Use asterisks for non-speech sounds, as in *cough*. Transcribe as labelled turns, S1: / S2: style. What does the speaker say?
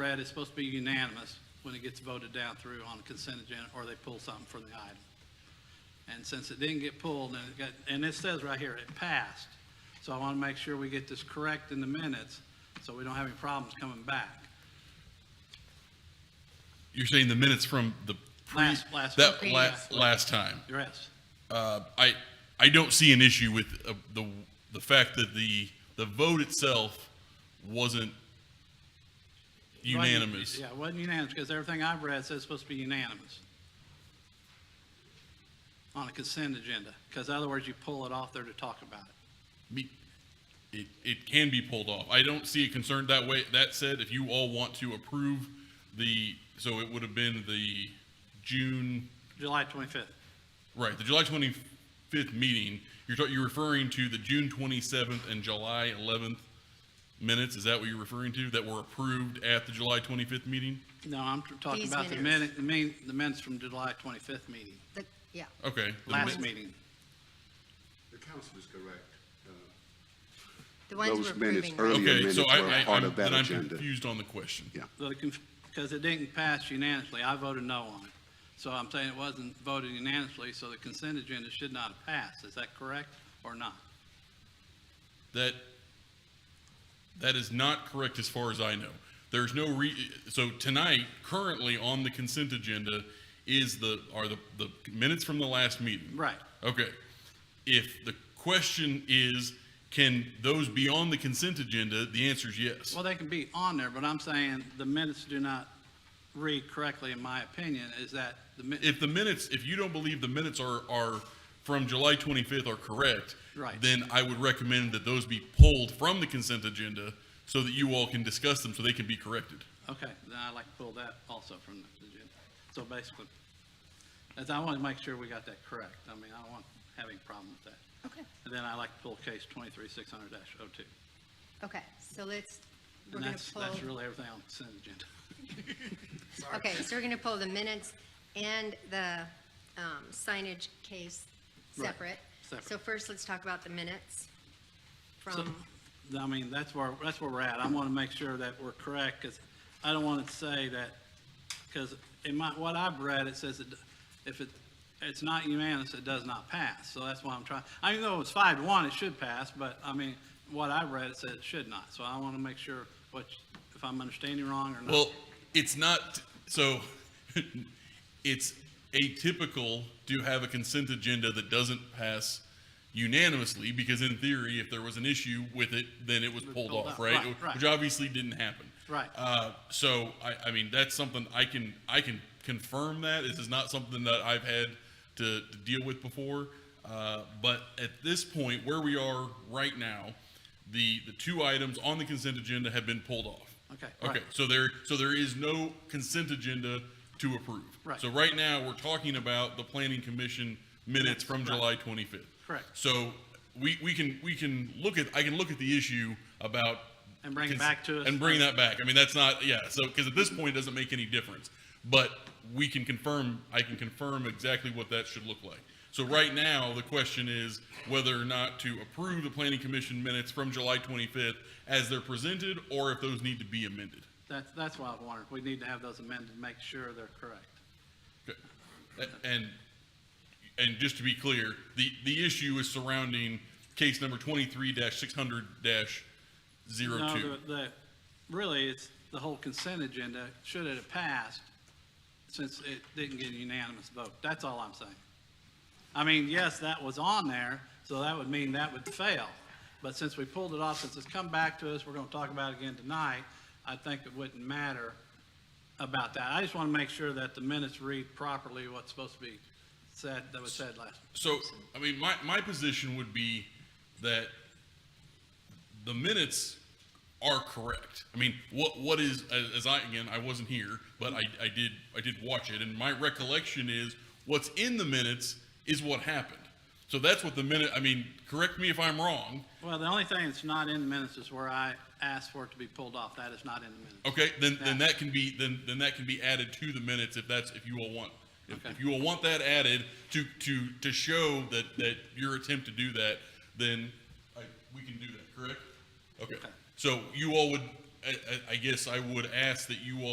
S1: read, it's supposed to be unanimous when it gets voted down through on the consent agenda, or they pull something from the item. And since it didn't get pulled, and it got, and it says right here, it passed. So I want to make sure we get this correct in the minutes, so we don't have any problems coming back.
S2: You're saying the minutes from the pre-
S1: Last- last
S2: that
S1: week.
S2: la-
S1: Previous.
S2: last time.
S1: Yes,
S2: Uh, I I don't see an issue with uh, the the fact that the the vote itself wasn't unanimous.
S1: Yeah, it wasn't unanimous, because everything I've read says it's supposed to be unanimous on a consent agenda, because otherwise you pull it off there to talk about it.
S2: Be- It, it can be pulled off. I don't see it concerned that way. That said, if you all want to approve the, so it would have been the June,
S1: July 25th.
S2: right, the July 25th meeting, you're, talk- you're referring to the June 27th and July 11th minutes? Is that what you're referring to, that were approved at the July 25th meeting?
S1: No, I'm tr- talking
S3: These
S1: about the minute,
S3: minutes.
S1: the min- the minutes from July 25th meeting,
S3: The- Yeah,
S2: Okay. the
S1: last
S2: mi-
S1: meeting.
S4: The council is correct. Uh,
S3: the ones
S4: Those
S3: we're
S4: minutes
S3: approving.
S4: early-
S3: now.
S4: Earlier
S2: Okay, so
S4: minutes
S2: I,
S4: were
S2: I,
S4: part
S2: I'm-
S4: of that
S2: then I'm
S4: agenda.
S2: confused on the question.
S4: Yeah.
S1: Because it didn't pass unanimously, I voted no on it. So I'm saying it wasn't voted unanimously, so the consent agenda should not have passed. Is that correct or not?
S2: That, that is not correct as far as I know. There's no re, so tonight, currently on the consent agenda is the, are the, the minutes from the last meeting.
S1: Right.
S2: Okay. If the question is, can those be on the consent agenda, the answer is yes.
S1: Well, they can be on there, but I'm saying the minutes do not read correctly, in my opinion, is that the minutes.
S2: If the minutes, if you don't believe the minutes are, are from July 25th are correct,
S1: Right.
S2: then I would recommend that those be pulled from the consent agenda so that you all can discuss them so they can be corrected.
S1: Okay, then I'd like to pull that also from the agenda. So basically, as I want to make sure we got that correct. I mean, I don't want having a problem with that.
S3: Okay,
S1: And then I like to pull case twenty-three, six hundred dash oh two.
S3: okay, so let's, we're
S1: And
S3: gonna
S1: that's,
S3: pull,
S1: that's really everything on the consent agenda.
S3: okay, so we're gonna pull the minutes and the um, signage case
S1: Right,
S3: separate.
S1: separate.
S3: So first, let's talk about the minutes from,
S1: So, I mean, that's where, that's where we're at. I want to make sure that we're correct, because I don't want to say that, because in my, what I've read, it says that if it, it's not unanimous, it does not pass. So that's why I'm trying, I mean, though it's five to one, it should pass, but I mean, what I read, it said it should not. So I want to make sure what, if I'm understanding wrong or not.
S2: Well, it's not, so *laughs* it's atypical to have a consent agenda that doesn't pass unanimously because in theory, if there was an issue with it, then it was pulled
S1: pulled
S2: off,
S1: off,
S2: right?
S1: right, right.
S2: Which obviously didn't happen.
S1: Right.
S2: Uh, so I, I mean, that's something I can, I can confirm that. This is not something that I've had to, to deal with before. Uh, but at this point, where we are right now, the, the two items on the consent agenda have been pulled off.
S1: Okay, right.
S2: Okay, so there, so there is no consent agenda to approve.
S1: Right.
S2: So right now, we're talking about the planning commission minutes from July 25th.
S1: Correct.
S2: So we, we can, we can look at, I can look at the issue about.
S1: And bring it
S2: cons-
S1: back to us.
S2: And bring that back. I mean, that's not, yeah, so, because at this point, it doesn't make any difference. But we can confirm, I can confirm exactly what that should look like. So right now, the question is whether or not to approve the planning commission minutes from July 25th as they're presented, or if those need to be amended.
S1: That's, that's why I wondered. We need to have those amended, to make sure they're correct.
S2: Okay. A- And, and just to be clear, the, the issue is surrounding case number twenty-three six hundred 2
S1: No, the- the, really, it's the whole consent agenda, should it have passed, since it didn't get a unanimous vote. That's all I'm saying. I mean, yes, that was on there, so that would mean that would fail. But since we pulled it off, since it's come back to us, we're going to talk about it again tonight, I think it wouldn't matter about that. I just want to make sure that the minutes read properly what's supposed to be said, that was said last.
S2: So, I mean, my, my position would be that the minutes are correct. I mean, what, what is, as- as I, again, I wasn't here, but I, I did, I did watch it, and my recollection is what's in the minutes is what happened. So that's what the minute, I mean, correct me if I'm wrong,
S1: Well, the only thing that's not in the minutes is where I asked for it to be pulled off. That is not in the minutes.
S2: Okay, then, then
S1: Yeah.
S2: that can be, then, then that can be added to the minutes if that's, if you all want, if,
S1: Okay.
S2: if you all want that added to, to, to show that, that your attempt to do that, then I, we can do that, correct? Okay,
S1: Okay.
S2: so you all would, I, I, I guess I would ask that you all.